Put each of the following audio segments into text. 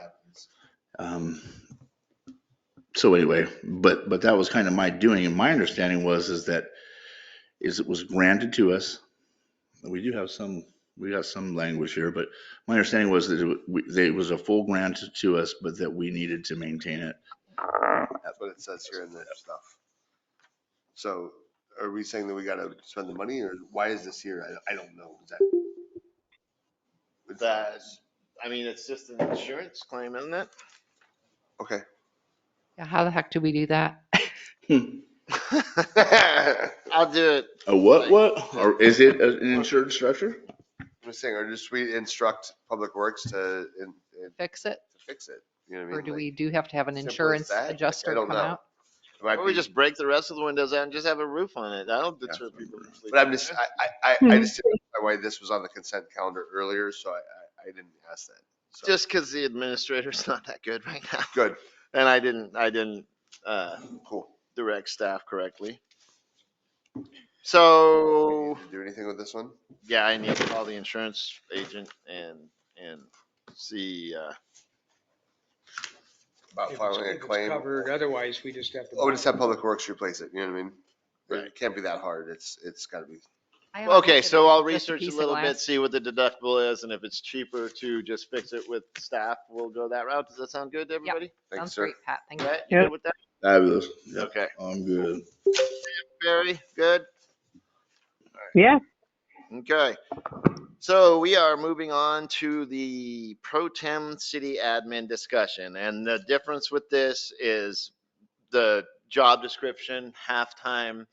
happens. Um, So anyway, but, but that was kind of my doing, and my understanding was, is that, is it was granted to us. We do have some, we got some language here, but my understanding was that it wa- we- that it was a full grant to us, but that we needed to maintain it. That's what it says here in the stuff. So are we saying that we gotta spend the money or why is this here? I, I don't know. Is that- That, I mean, it's just an insurance claim, isn't it? Okay. Yeah, how the heck do we do that? Hmm. I'll do it. A what, what? Or is it a- an insured structure? I'm just saying, or just we instruct Public Works to, in- in- Fix it? to fix it. You know what I mean? Or do Like, we do have to have an simple as insurance that? Like, I adjuster don't come know. out? it might Or we be- just break the rest of the windows out and just have a roof on it. I don't deter people from sleeping. But I'm just, I, I, I- I just didn't understand why this was on the consent calendar earlier, so I, I- I didn't ask that. So, Just because the administrator's not that good right now. Good, And I didn't, I didn't, uh, cool. direct staff correctly. So, Did you Do anything with this one? yeah, I need to call the insurance agent and, and see, uh, About If it's- filing if a it's claim? Covered, otherwise we just have to. Oh, we just have Public Works replace it, you know what I mean? It Right. can't be that hard. It's, it's gotta be, I don't okay, think that so it's I'll just research a piece of little bit, glass. see what the deductible is and if it's cheaper to just fix it with staff, we'll go that route. Does that sound good to everybody? thanks, Sounds sir. great, Pat. Thank you. Right? You good with that? Fabulous. Yep, Okay. I'm good. Barry, good? Yeah, Okay, so we are moving on to the pro tem city admin discussion, and the difference with this is the job description, halftime,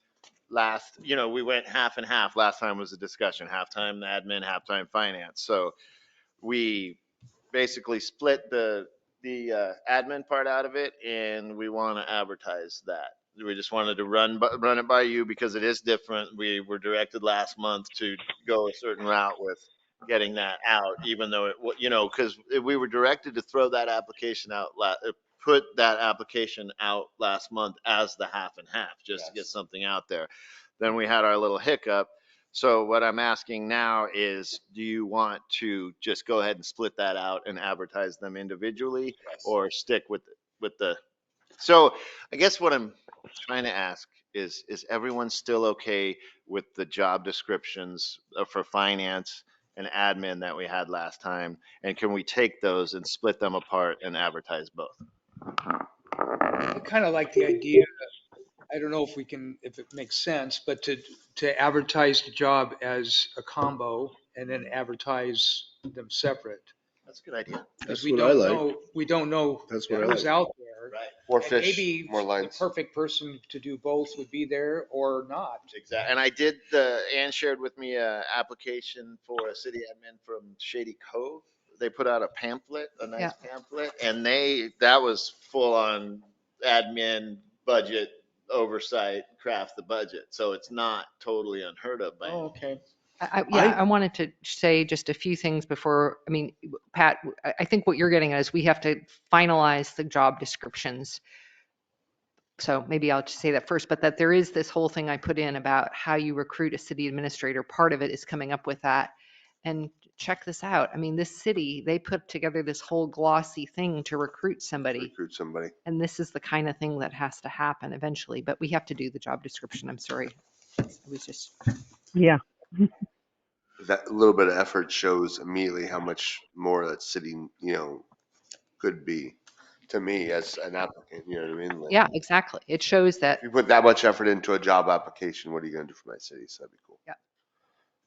last, you know, we went half and half, last time was the discussion, halftime admin, halftime finance, so we basically split the, the uh, admin part out of it, and we want to advertise that we just wanted to run, bu- run it by you because it is different. We were directed last month to go a certain route with getting that out, even though it, wa- you know, because we were directed to throw that application out, la- uh, put that application out last month as the half and half, just to get Yes. something out there. Then we had our little hiccup. So what I'm asking now is, do you want to just go ahead and split that out and advertise them individually? or stick with, with the, so I guess what I'm trying to ask is, is everyone still okay with the job descriptions uh, for finance and admin that we had last time? And can we take those and split them apart and advertise both? I kind of like the idea, I don't know if we can, if it makes sense, but to, to advertise the job as a combo and then advertise them separate. That's a good idea. 'Cause That's we what I don't like. know- We don't know That's what I who's like. out there. Right, More And fish, maybe more The lines. perfect person to do both would be there or not. exactly. And I did the, Ann shared with me a application for a city admin from Shady Cove. They put out a pamphlet, a nice pamphlet, and they, that was full on admin budget oversight, craft the budget. So it's not totally unheard of by. Oh, okay. I, I- yeah, I wanted to say just a few things before, I mean, Pat, I, I think what you're getting at is we have to finalize the job descriptions. So maybe I'll just say that first, but that there is this whole thing I put in about how you recruit a city administrator. Part of it is coming up with that. And check this out. I mean, this city, they put together this whole glossy thing to recruit somebody. Recruit somebody. And this is the kind of thing that has to happen eventually, but we have to do the job description. I'm sorry. It was just. yeah. That little bit of effort shows immediately how much more that city, you know, could be to me as an applicant, you know what I mean? Like, Yeah, exactly. It shows that If you put that much effort into a job application, what are you gonna do for my city? So that'd be cool. Yeah.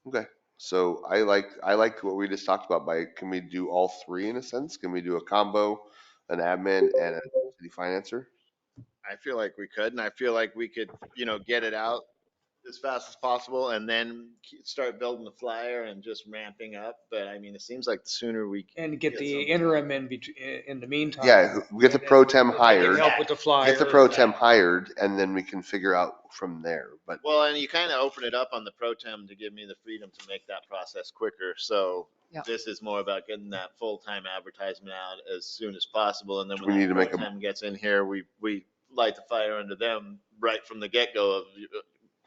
Okay, so I like, I like what we just talked about by, can we do all three in a sense? Can we do a combo, an admin and a city financer? I feel like we could, and I feel like we could, you know, get it out as fast as possible and then ke- start building the flyer and just ramping up. But I mean, it seems like the sooner we, And get Yeah, the something. interim in, bet- in the meantime. Yeah, who- get the pro tem They can hired, Help with the flyer. get the pro tem hired, and then we can figure out from there, but well, and you kind of open it up on the pro tem to give me the freedom to make that process quicker. So Yeah. this is more about getting that full-time advertisement out as soon as possible. And then We when need that to make a- pro tem gets in here, we, we light the fire under them right from the get-go of your-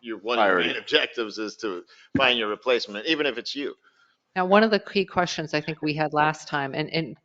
your, one of your Priority. main objectives is to find your replacement, even if it's you. Now, one of the key questions I think we had last time, and, and